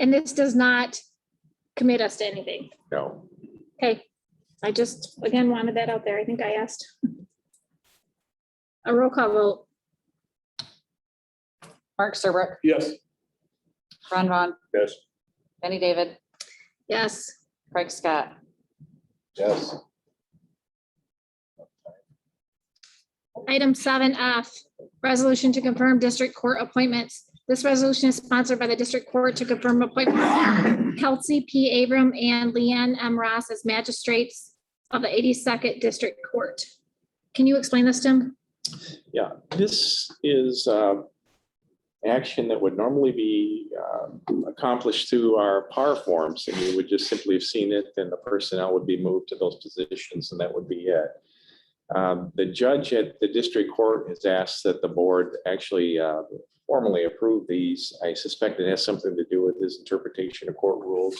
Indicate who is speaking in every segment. Speaker 1: And this does not commit us to anything.
Speaker 2: No,
Speaker 1: Okay, I just, again, wanted that out there. I think I asked. A roll call vote,
Speaker 3: Mark Serbrook,
Speaker 4: Yes.
Speaker 3: Ron Vaughn,
Speaker 2: yes.
Speaker 3: Benny David,
Speaker 1: yes.
Speaker 3: Craig Scott.
Speaker 2: Yes.
Speaker 1: Item seven F, resolution to confirm district court appointments. This resolution is sponsored by the district court to confirm appointment Kelsey P. Abram and Leanne M. Ross as magistrates of the eighty-second district court. Can you explain this, Jim?
Speaker 2: Yeah, this is uh, action that would normally be um, accomplished through our PAR forms, and you would just simply have seen it, and the personnel would be moved to those positions, and that would be it. Um, The judge at the district court has asked that the board actually uh, formally approve these. I suspect it has something to do with his interpretation of court rules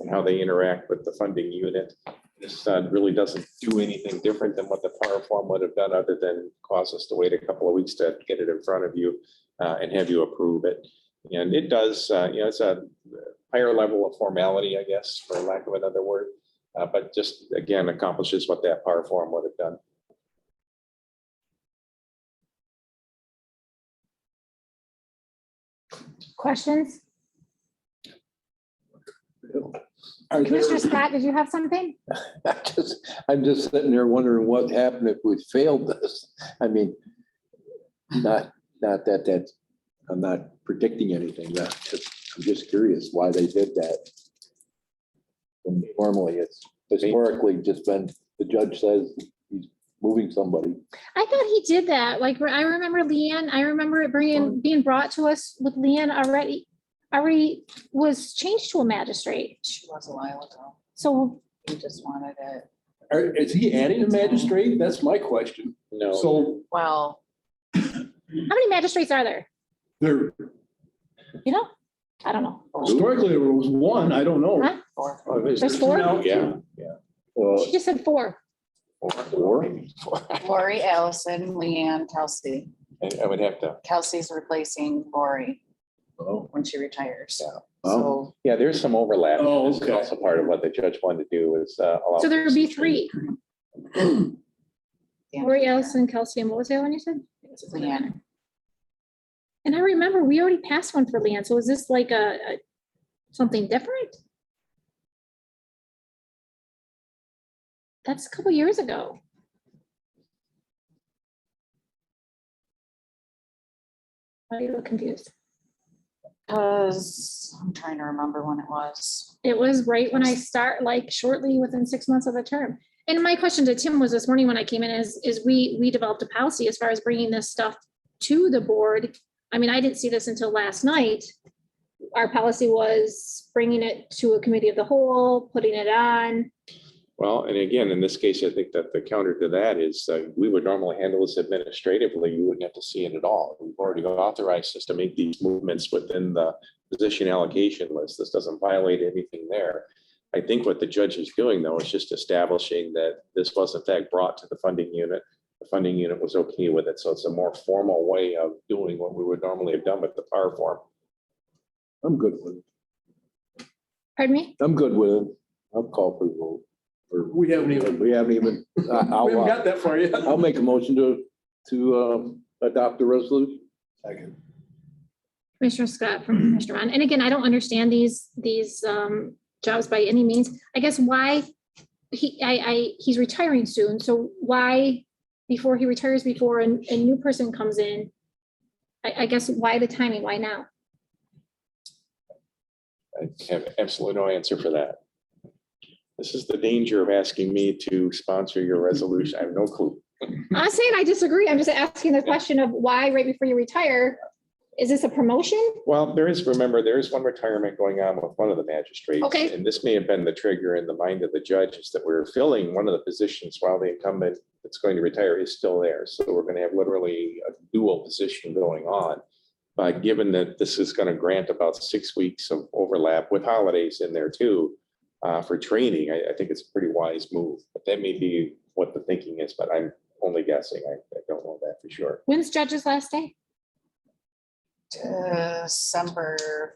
Speaker 2: and how they interact with the funding unit. This uh, really doesn't do anything different than what the power form would have done, other than cause us to wait a couple of weeks to get it in front of you uh, and have you approve it. And it does, uh, you know, it's a higher level of formality, I guess, for lack of another word. uh, But just, again, accomplishes what that power form would have done.
Speaker 1: Questions?
Speaker 5: Are
Speaker 1: Commissioner
Speaker 5: there-
Speaker 1: Scott, did you have something?
Speaker 5: I just- I'm just sitting there wondering what happened if we failed this. I mean, not, not that, that, I'm not predicting anything, but just- I'm just curious why they did that. And Normally, it's historically just been, the judge says he's moving somebody.
Speaker 1: I thought he did that. Like, I remember Leanne, I remember it bringing, being brought to us with Leanne already, already was changed to a magistrate.
Speaker 3: She was a while ago.
Speaker 1: So
Speaker 3: He just wanted it.
Speaker 4: Are- Is he adding a magistrate? That's my question.
Speaker 2: No,
Speaker 4: So
Speaker 3: Well,
Speaker 1: how many magistrates are there?
Speaker 4: there,
Speaker 1: You know? I don't know.
Speaker 4: historically, there was one, I don't know.
Speaker 1: Huh?
Speaker 3: or
Speaker 2: uh,
Speaker 4: Oh, is
Speaker 1: There's
Speaker 4: there
Speaker 1: four?
Speaker 4: now?
Speaker 2: yeah.
Speaker 1: She just said four.
Speaker 5: Or,
Speaker 3: Lori Allison, Leanne Kelsey.
Speaker 2: I- I would have to,
Speaker 3: Kelsey's replacing Lori
Speaker 5: oh,
Speaker 3: when she retires.
Speaker 2: Yeah.
Speaker 3: So
Speaker 2: yeah, there's some overlap.
Speaker 4: Oh,
Speaker 2: This is
Speaker 4: okay.
Speaker 2: Also part of what the judge wanted to do is uh, allow.
Speaker 1: So there'd be three,
Speaker 3: yeah.
Speaker 1: Lori Allison, Kelsey, and what was the other one you said?
Speaker 3: Leanne.
Speaker 1: And I remember we already passed one for Leanne, so is this like a, a- something different? That's a couple years ago. I look confused.
Speaker 3: Because I'm trying to remember when it was.
Speaker 1: It was right when I start, like shortly within six months of the term. And my question to Tim was this morning when I came in is, is we, we developed a policy as far as bringing this stuff to the board. I mean, I didn't see this until last night. Our policy was bringing it to a committee of the whole, putting it on.
Speaker 2: Well, and again, in this case, I think that the counter to that is uh, we would normally handle this administratively. You wouldn't have to see it at all. We've already authorized us to make these movements within the position allocation list. This doesn't violate anything there. I think what the judge is doing though is just establishing that this was in fact brought to the funding unit. The funding unit was okay with it. So it's a more formal way of doing what we would normally have done with the power form.
Speaker 5: I'm good with it.
Speaker 1: Pardon me?
Speaker 5: I'm good with it. I'll call for the vote. Or-
Speaker 4: We haven't even,
Speaker 5: We haven't even, I- I'll.
Speaker 4: we haven't
Speaker 5: uh,
Speaker 4: got that far yet.
Speaker 5: I'll make a motion to, to um, adopt the resolution.
Speaker 1: Commissioner Scott from Commissioner Ron. And again, I don't understand these, these um, jobs by any means. I guess why he, I, I, he's retiring soon. So why, before he retires, before a, a new person comes in? I, I guess why the timing? Why now?
Speaker 2: I have absolutely no answer for that. This is the danger of asking me to sponsor your resolution. I have no clue.
Speaker 1: I'm not saying I disagree. I'm just asking the question of why right before you retire? Is this a promotion?
Speaker 2: Well, there is, remember, there is one retirement going on with one of the magistrates.
Speaker 1: Okay.
Speaker 2: And this may have been the trigger in the mind of the judge is that we're filling one of the positions while the incumbent that's going to retire is still there. So we're going to have literally a dual position going on. But given that this is going to grant about six weeks of overlap with holidays in there too uh, for training, I, I think it's a pretty wise move. But that may be what the thinking is, but I'm only guessing. I, I don't know that for sure.
Speaker 1: When's judge's last day?
Speaker 3: December